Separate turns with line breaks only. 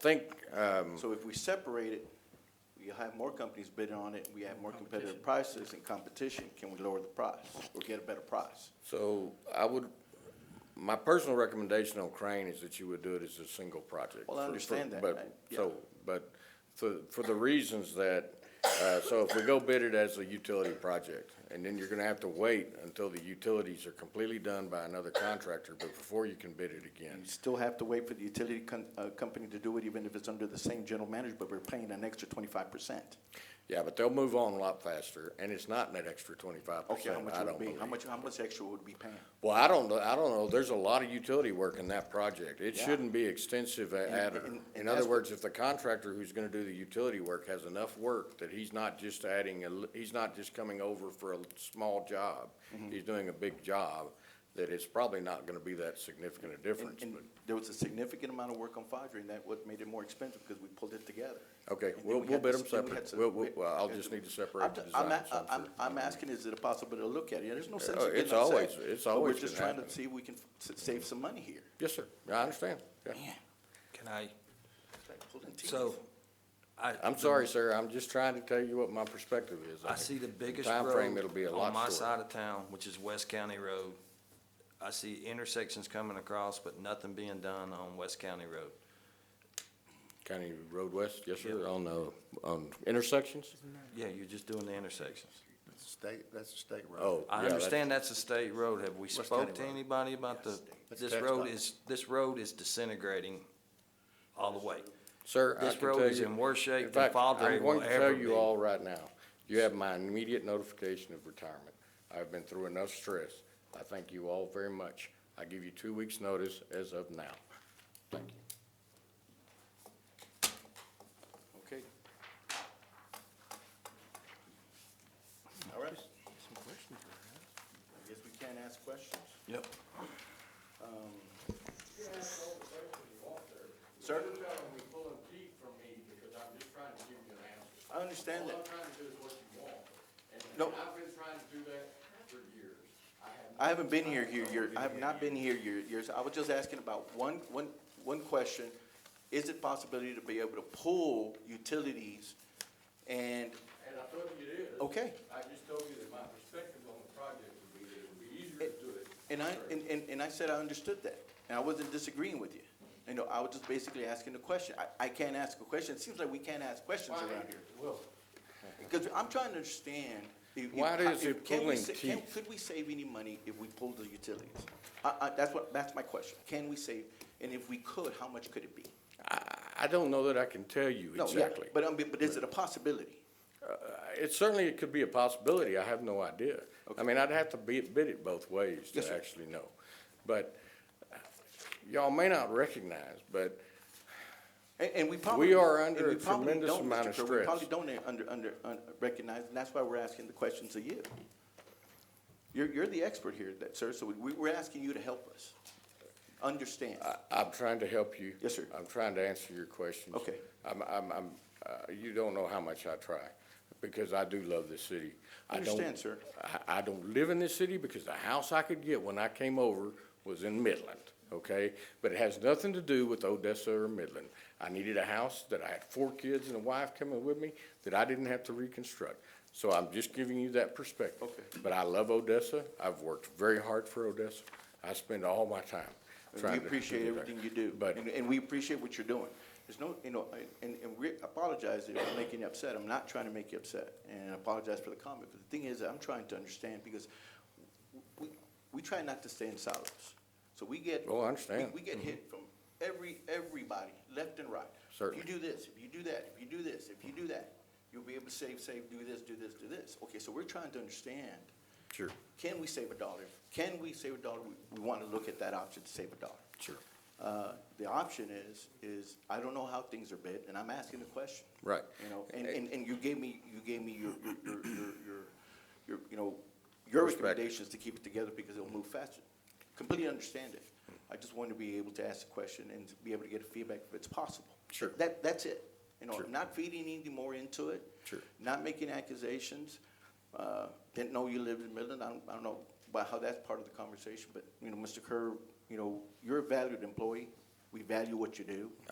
think, um,
So if we separate it, you have more companies bidding on it, we have more competitive prices and competition, can we lower the price or get a better price?
so I would, my personal recommendation on Crane is that you would do it as a single project.
Well, I
for- for-
understand that,
but-
right?
So,
Yeah.
but for, for the reasons that, uh, so if we go bid it as a utility project, and then you're gonna have to wait until the utilities are completely done by another contractor, but before you can bid it again.
You still have to wait for the utility con, uh, company to do it, even if it's under the same general manager, but we're paying an extra twenty-five percent.
Yeah, but they'll move on a lot faster, and it's not in that extra twenty-five
Okay, how
percent,
much
I
would
don't
it be?
believe.
How much, how much extra would we be paying?
Well, I don't, know. I don't know, there's a lot of utility work in that project. It
Yeah.
shouldn't be extensive a- adder.
and- and
In
that's
other
what-
words, if the contractor who's gonna do the utility work has enough work that he's not just adding, a li- he's not just coming over for a small job,
Mm-hmm.
he's doing a big job, that it's probably not gonna be that significant a
And,
difference,
and
but,
there was a significant amount of work on Fodry, and that what made it more expensive, because we pulled it together.
okay,
And then
we'll,
we
we'll
had to
bid them
s- then we had
separate.
to-
We'll, we'll, well, I'll just need to
I'm,
separate the
ju- I'm,
design.
a- I'm, I'm asking, is it a possibility to look at it? Yeah, there's no sense
Oh,
in getting
it's
upset,
always- it's always
But we're just
gonna
trying to
happen.
see if we can f- s- save some money here.
Yes, sir, I understand, yeah.
Man,
Can I,
it's like pulling teeth.
so, I.
I'm sorry, sir, I'm just trying to tell you what my perspective is.
I see the biggest
Time frame, it'll be a
road on
lot
my
shorter.
side of town, which is West County Road. I see intersections coming across, but nothing being done on West County Road.
County Road West, yes, sir,
Yeah.
on,
Mm-hmm.
uh, on intersections?
Yeah, you're just doing the intersections.
State, that's a state road.
Oh, yeah.
I
that's-
understand that's a state road. Have we
West
spoke
County
to
Road.
anybody about the,
That's
this
tax
road
dollars.
is, this road is disintegrating all the way.
Sir, I
This
can
road
tell
is
you-
in worse shape
in
than
fact,
Fodry
I'm
will
going to
ever
tell you
be.
all right now, you have my immediate notification of retirement. I've been through enough stress. I thank you all very much. I give you two weeks' notice as of now. Thank you.
Okay. All right. I guess we can ask questions.
Yep.
Sir?
be pulling teeth from me because I'm just trying to give you an answer.
I understand that.
trying to do is what you want.
No.
been trying to do that for years. I have
I haven't been here, here, year, I have not been here year, years. I was just asking about one, one, one question. Is it possibility to be able to pull utilities
And
and,
I told you it is.
okay.
I just told you that my perspective on the project would be that it would be easier to do it.
And I, and, and, and I said I understood that, and I wasn't disagreeing with you. You know, I was just basically asking a question. I, I can't ask a question. It seems like we can't ask questions around here.
Well,
Because I'm trying to understand. if-
Why
if-
is it
if- can we
pulling
sa- can-
teeth?
Could we save any money if we pulled the utilities? I, I, that's what, that's my question. Can we save, and if we could, how much could it be?
I, I don't know that I can tell you
No, yeah,
exactly.
But, um, but is it a possibility?
It certainly, it could be a possibility, I have no idea. I mean, I'd have to be- bid it both ways
Yes,
to
sir.
actually know. But uh, y'all may not recognize, but
And, and we probably.
are
and
under
we
a
probably
tremendous
don't, Mr.
amount of
Kerr. We
stress.
probably don't uh, under, under, un- recognize, and that's why we're asking the questions of you. You're, you're the expert here, that, sir, so we- we, we're asking you to help us understand.
I, I'm trying to help you.
Yes, sir.
I'm trying to answer your questions.
Okay.
I'm, I'm, I'm, uh, you don't know how much I try, because I do love this city. I don't-
Understand, sir.
I, I don't live in this city because the house I could get when I came over was in Midland, okay? But it has nothing to do with Odessa or Midland. I needed a house that I had four kids and a wife coming with me that I didn't have to reconstruct. So I'm just giving you that perspective.
Okay.
But I love Odessa. I've worked very hard for Odessa. I spend all my time
We
trying to
appreciate
do that.
everything you do.
But,
And, and we appreciate what you're doing. There's no, you know, and, and we apologize if I'm making you upset. I'm not trying to make you upset. And I apologize for the comment, but the thing is, I'm trying to understand because we, we try not to stay in silos. So we get.
Oh, I understand.
We, we get hit from every, everybody, left and right.
Certainly.
If you do this, if you do that, if you do this, if you do that, you'll be able to save, save, do this, do this, do this. Okay, so we're trying to understand
sure,
can we save a dollar? Can we save a dollar? We- We want to look at that option to save a dollar.
sure,
Uh, The option is, is I don't know how things are bid, and I'm asking the question.
Right.
You know, and, and, and you gave me, you gave me your, your- your, your, your, your, you know, your
Perspective.
recommendations to keep it together because it'll move faster. Completely understand it. I just want to be able to ask the question and to be able to get feedback if it's possible.
Sure.
That, that's it. You know,
Sure.
not feeding any more into it.
Sure.
Not making accusations. Uh, Didn't know you lived in Midland. I don't, I don't know about how that's part of the conversation, but, you know, Mr. Kerr, you know, you're a valued employee. We value what you do.